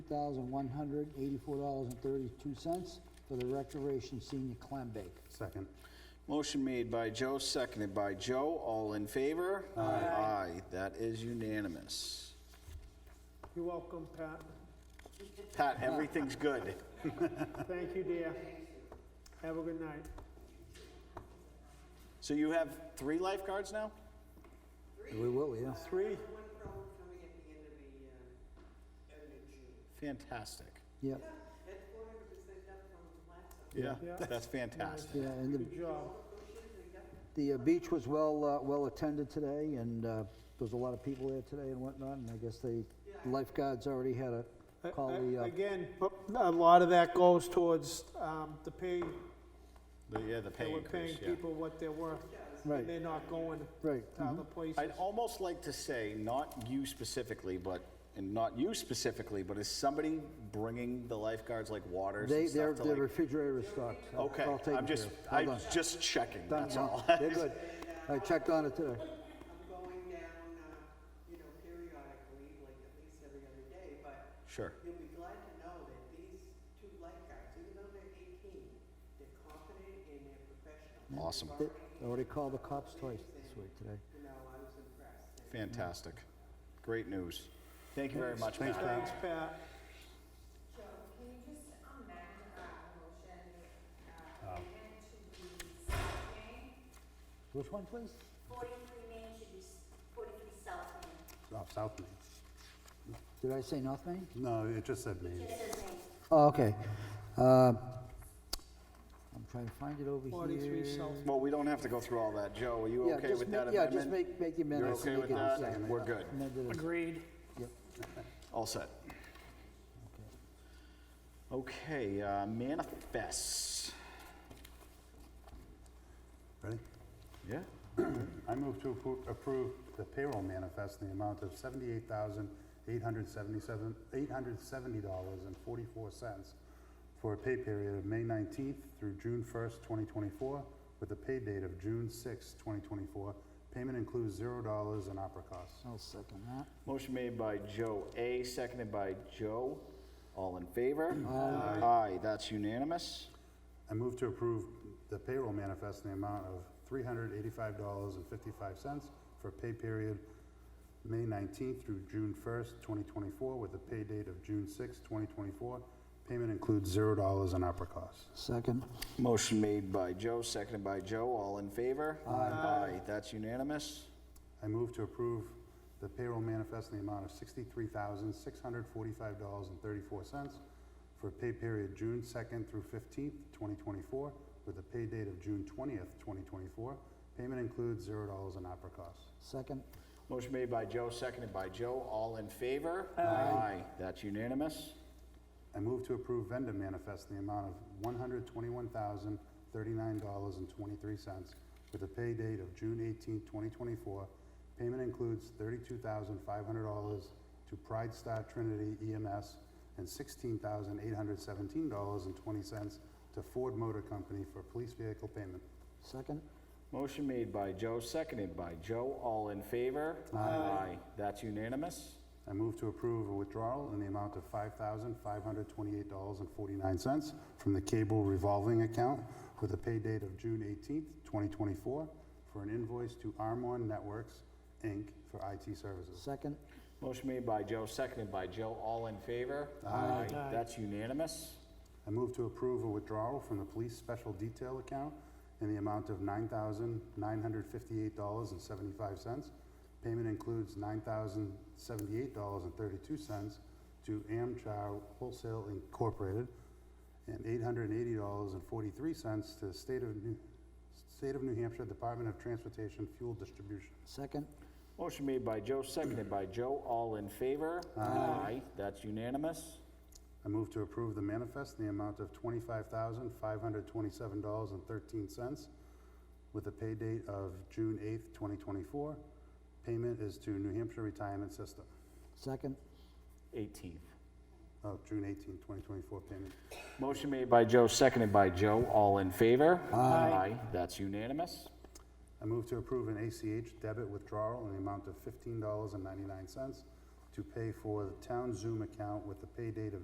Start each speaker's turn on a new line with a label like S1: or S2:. S1: thousand one hundred eighty-four dollars and thirty-two cents for the Recreation Senior Clam Bake.
S2: Second.
S3: Motion made by Joe, seconded by Joe. All in favor? Aye. Aye, that is unanimous.
S4: You're welcome, Pat.
S3: Pat, everything's good.
S4: Thank you, dear. Have a good night.
S3: So you have three lifeguards now?
S1: We will, yeah.
S4: Three.
S5: One problem coming at the end of the, uh, end of June.
S3: Fantastic.
S1: Yeah,
S5: That's four hundred percent up from last summer.
S3: Yeah.
S4: Yeah.
S3: That's fantastic.
S1: yeah, and the,
S4: Good job.
S1: the uh, beach was well, uh, well attended today, and, uh, there was a lot of people there today and whatnot, and I guess they, lifeguards already had
S4: I-
S1: a call
S4: I-
S1: the, uh,
S4: Again, a lot of that goes towards um, the pay,
S3: The- Yeah, the
S4: that
S3: pay
S4: we're paying
S3: increase, yeah.
S4: people what they're worth.
S1: Right. Mm-hmm.
S4: And they're not going
S1: Right,
S4: to other places.
S3: I'd almost like to say, not you specifically, but, and not you specifically, but is somebody bringing the lifeguards like waters
S1: they,
S3: and
S1: their,
S3: stuff to
S1: their
S3: like?
S1: refrigerator is stocked. I'll-
S3: Okay,
S1: I'll take
S3: I'm
S1: it
S3: just,
S1: there. Hold
S3: I'm
S1: on.
S3: just checking,
S1: Done,
S3: that's
S1: no,
S3: all.
S1: They're good. I checked on it today.
S5: I'm going down, uh, you know, periodically, like at least every other day, but
S3: Sure.
S5: you'll be glad to know that these two lifeguards, even though they're eighteen, they're confident and they're professional.
S3: Awesome.
S1: They already called the cops twice this week today.
S5: You know, I was impressed. And
S3: Fantastic. Great news. Thank you very much, Matt.
S4: Thanks, Pat.
S6: Joe, can you just amend our motion, uh, amendment to be South Main?
S1: Which one, please?
S6: Forty-three Main should be s- forty-three South Main.
S2: Oh, South Main.
S1: Did I say North Main?
S2: No, it just said Main.
S6: Just as Main.
S1: Oh, okay. Uh, I'm trying to find it over here.
S4: 43 South.
S3: Well, we don't have to go through all that. Joe, are you
S1: Yeah,
S3: okay
S1: just
S3: with that
S1: make- Yeah, just
S3: amendment?
S1: make, make the
S3: You're
S1: amendments.
S3: okay
S1: and
S3: with
S1: make it the
S3: that?
S1: same.
S3: We're good.
S1: Amended as-
S4: Agreed.
S3: All set. Okay, uh, manifests.
S2: Ready?
S3: Yeah.
S2: I move to appro- approve the payroll manifest in the amount of seventy-eight thousand, eight hundred seventy-seven, eight hundred seventy dollars and forty-four cents for a pay period of May nineteenth through June first, twenty twenty-four, with a pay date of June sixth, twenty twenty-four. Payment includes zero dollars in opera costs.
S1: I'll second that.
S3: Motion made by Joe A, seconded by Joe. All in favor? Aye. Aye, that's unanimous.
S2: I move to approve the payroll manifest in the amount of three hundred eighty-five dollars and fifty-five cents for pay period May nineteenth through June first, twenty twenty-four, with a pay date of June sixth, twenty twenty-four. Payment includes zero dollars in opera costs.
S1: Second.
S3: Motion made by Joe, seconded by Joe. All in favor? Aye. Aye, that's unanimous.
S2: I move to approve the payroll manifest in the amount of sixty-three thousand, six hundred forty-five dollars and thirty-four cents for pay period June second through fifteenth, twenty twenty-four, with a pay date of June twentieth, twenty twenty-four. Payment includes zero dollars in opera costs.
S1: Second.
S3: Motion made by Joe, seconded by Joe. All in favor? Aye. That's unanimous.
S2: I move to approve vendor manifest in the amount of one hundred twenty-one thousand, thirty-nine dollars and twenty-three cents with a pay date of June eighteenth, twenty twenty-four. Payment includes thirty-two thousand, five hundred dollars to Pride Star Trinity EMS and sixteen thousand, eight hundred seventeen dollars and twenty cents to Ford Motor Company for police vehicle payment.
S1: Second.
S3: Motion made by Joe, seconded by Joe. All in favor? Aye. That's unanimous.
S2: I move to approve a withdrawal in the amount of $5,528.49 from the cable revolving account with a pay date of June 18th, 2024, for an invoice to Armon Networks, Inc. for IT services.
S1: Second.
S3: Motion made by Joe, seconded by Joe. All in favor? Aye. That's unanimous.
S2: I move to approve a withdrawal from the police special detail account in the amount of $9,958.75. Payment includes $9,078.32 to Amchow Wholesale Incorporated and $880.43 to the State of New, State of New Hampshire Department of Transportation Fuel Distribution.
S1: Second.
S3: Motion made by Joe, seconded by Joe. All in favor? Aye. That's unanimous.
S2: I move to approve the manifest in the amount of twenty-five thousand, five hundred twenty-seven dollars and thirteen cents with a pay date of June eighth, twenty twenty-four. Payment is to New Hampshire Retirement System.
S1: Second.
S3: 18th.
S2: Oh, June eighteenth, twenty twenty-four payment.
S3: Motion made by Joe, seconded by Joe. All in favor? Aye. That's unanimous.
S2: I move to approve an ACH debit withdrawal in the amount of fifteen dollars and ninety-nine cents to pay for the town Zoom account with the pay date of